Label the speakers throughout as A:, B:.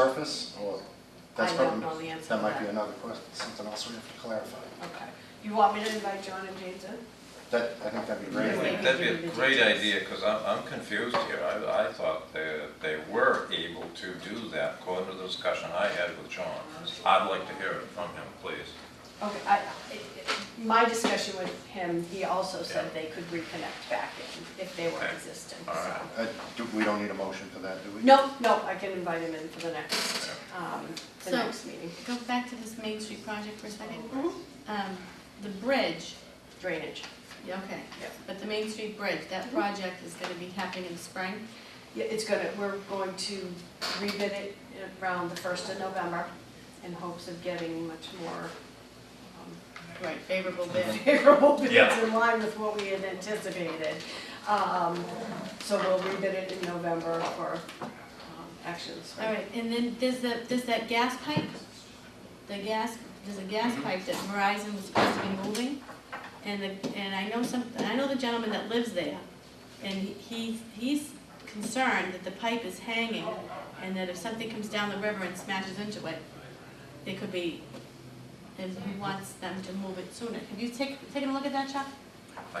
A: surface, or that's
B: I
A: probably...
B: don't know the answer
A: That
B: to
A: might be
B: that.
A: another question, something else we have to clarify.
B: Okay. You want me to invite John and James in?
A: That, I think that'd be
B: Yeah.
A: great.
C: That'd be a great idea, because I'm, I'm confused here. I, I thought they, they were able to do that, according to the discussion I had with John. I'd like to hear it from him, please.
B: Okay, I, it- it- my discussion with him, he also said
C: Yeah.
B: they could reconnect back in if they were
C: Okay.
B: existing,
C: All
B: so.
C: right.
A: Uh, do- We don't need a motion for that, do we?
B: No, no, I can invite him in for the next, um, the
D: So-
B: next meeting.
D: Go back to this Main Street project for a second.
B: Mhm.
D: Um, The bridge,
B: Drainage.
D: yeah, okay,
B: Yep.
D: but the Main Street bridge, that project is gonna be happening in the spring.
B: Yeah, it's gonna, we're going to rebid it around the first of November in hopes of getting much more um,
D: Right, favorable bid.
B: favorable bids
C: Yeah.
B: in line with what we had anticipated. Um, So we'll rebid it in November for um, action this
D: All
B: spring.
D: right, and then there's the, there's that gas pipe, the gas, there's a gas pipe that Verizon was supposed to be moving. And the, and I know some, I know the gentleman that lives there, and he, he's concerned that the pipe is hanging, and that if something comes down the river and smashes into it, they could be, and he wants them to move it sooner. Have you taken, taken a look at that, Chuck?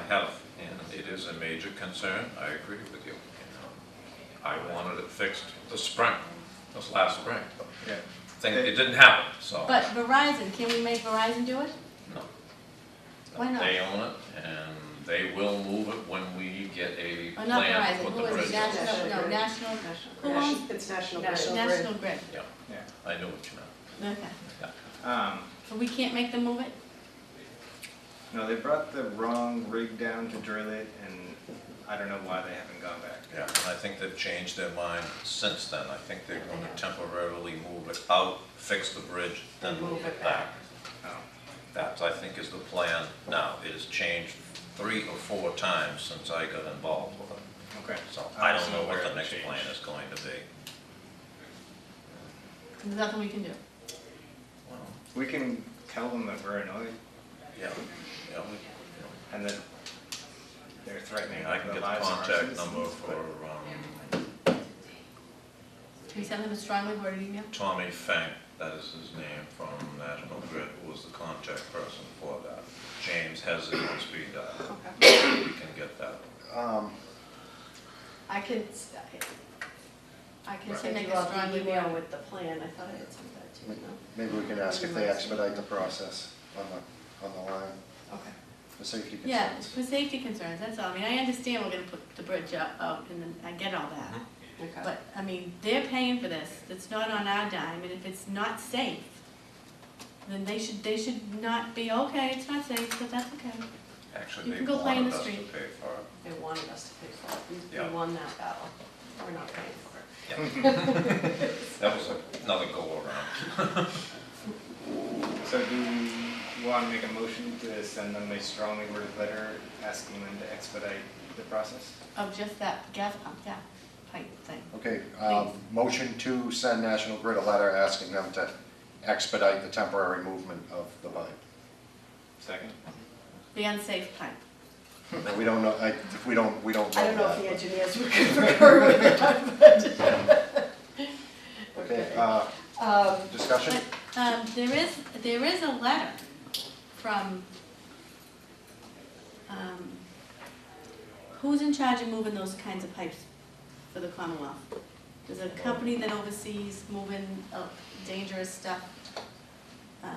C: I have, and it is a major concern. I agree with you. I wanted it fixed this spring, this last spring.
A: Yeah.
C: Thing, it didn't happen, so.
D: But Verizon, can we make Verizon do it?
C: No.
D: Why not?
C: They own it, and they will move it when we get a
D: Or not
C: plan
D: Verizon,
C: with the
D: who
C: bridge.
D: is it, National, no, National, who owns
B: It's National
D: National Grid,
C: I know what you meant.
D: okay.
E: Um,
D: But we can't make them move it?
E: no, they brought the wrong rig down to drill it, and I don't know why they haven't gone back.
C: Yeah, and I think they've changed their mind since then. I think they're going to temporarily move it out, fix the bridge, then move it back.
E: Oh,
C: That, I think, is the plan now. It has changed three or four times since I got involved with it.
E: okay.
C: So I don't know
E: Somewhere
C: what the
E: it
C: next
E: changed.
C: plan is going to be.
D: There's nothing we can do.
C: Well,
E: We can tell them that we're annoyed
C: Yeah, yeah, we-
E: and that they're threatening
C: yeah. I can
E: the
C: get the
E: lives of our
C: contact
E: citizens,
C: number
E: but-
C: for um,
D: Can we send them a strongly worded email?
C: Tommy Fink, that is his name, from National Grid, who was the contact person for that. James has it on speed dial.
B: Okay.
C: We can get that.
A: Um,
B: I can, s- I I can
C: Right.
B: send
D: Make
B: you
D: a
B: all
D: strong
B: the
D: email.
B: email with the plan. I thought I had sent that to you, no?
A: Maybe we can ask if they expedite the process on the, on the line
B: Okay.
A: for safety
D: Yeah,
A: concerns.
D: for safety concerns, that's all. I mean, I understand we're gonna put the bridge up, out, and then I get all that.
B: Okay.
D: But, I mean, they're paying for this. It's not on our dime, and if it's not safe, then they should, they should not be, okay, it's not safe, but that's okay.
C: Actually,
D: You
C: they
D: can go play in
C: wanted
D: the
C: us to pay
D: street.
C: for it.
B: They wanted us to pay for it. We-
C: Yeah.
B: We won that battle. We're not paying for it.
C: That was another go around.
E: So do you want to make a motion to send them a strongly worded letter asking them to expedite the process?
D: Of just that gas pump, yeah, pipe thing.
A: Okay, um, motion to send National Grid a letter asking them to expedite the temporary movement of the line.
E: Second?
D: The unsafe pipe.
A: We don't know, I, we don't, we don't.
B: I don't know if the
A: that.
B: engineers were good for curb that, but.
A: Okay, uh,
B: Um,
A: discussion?
D: But, um, there is, there is a letter from, um, who's in charge of moving those kinds of pipes for the Commonwealth? There's a company that oversees moving uh, dangerous stuff. Um,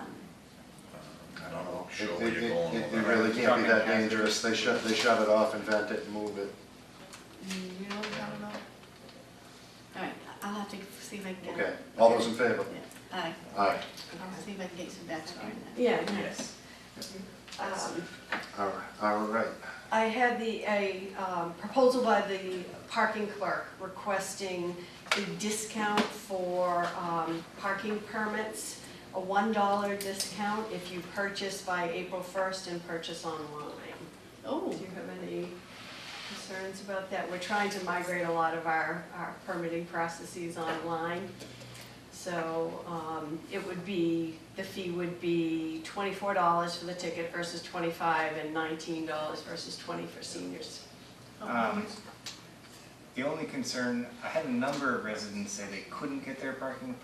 C: I'm not sure
A: It-
C: where
A: it-
C: you're going
A: it-
C: with
A: It
C: that.
A: really can't be that dangerous, they shut, they shut it off and vent it and move it.
D: You know, I don't know. All right, I'll have to see if I can get.
A: Okay, all those in favor?
D: Yeah, Aye,
A: Aye.
D: I'll see if I can get some backstory on that.
B: yeah, yes. Um,
A: All right, all right.
B: I had the, a um, proposal by the parking clerk requesting a discount for um, parking permits, a $1 discount if you purchase by April 1st and purchase online.
D: Oh,
B: Do you have any concerns about that? We're trying to migrate a lot of our, our permitting processes online. So, um, it would be, the fee would be twenty-four dollars for the ticket versus twenty-five and nineteen dollars versus twenty for seniors.
E: Um, The only concern, I had a number of residents say they couldn't get their parking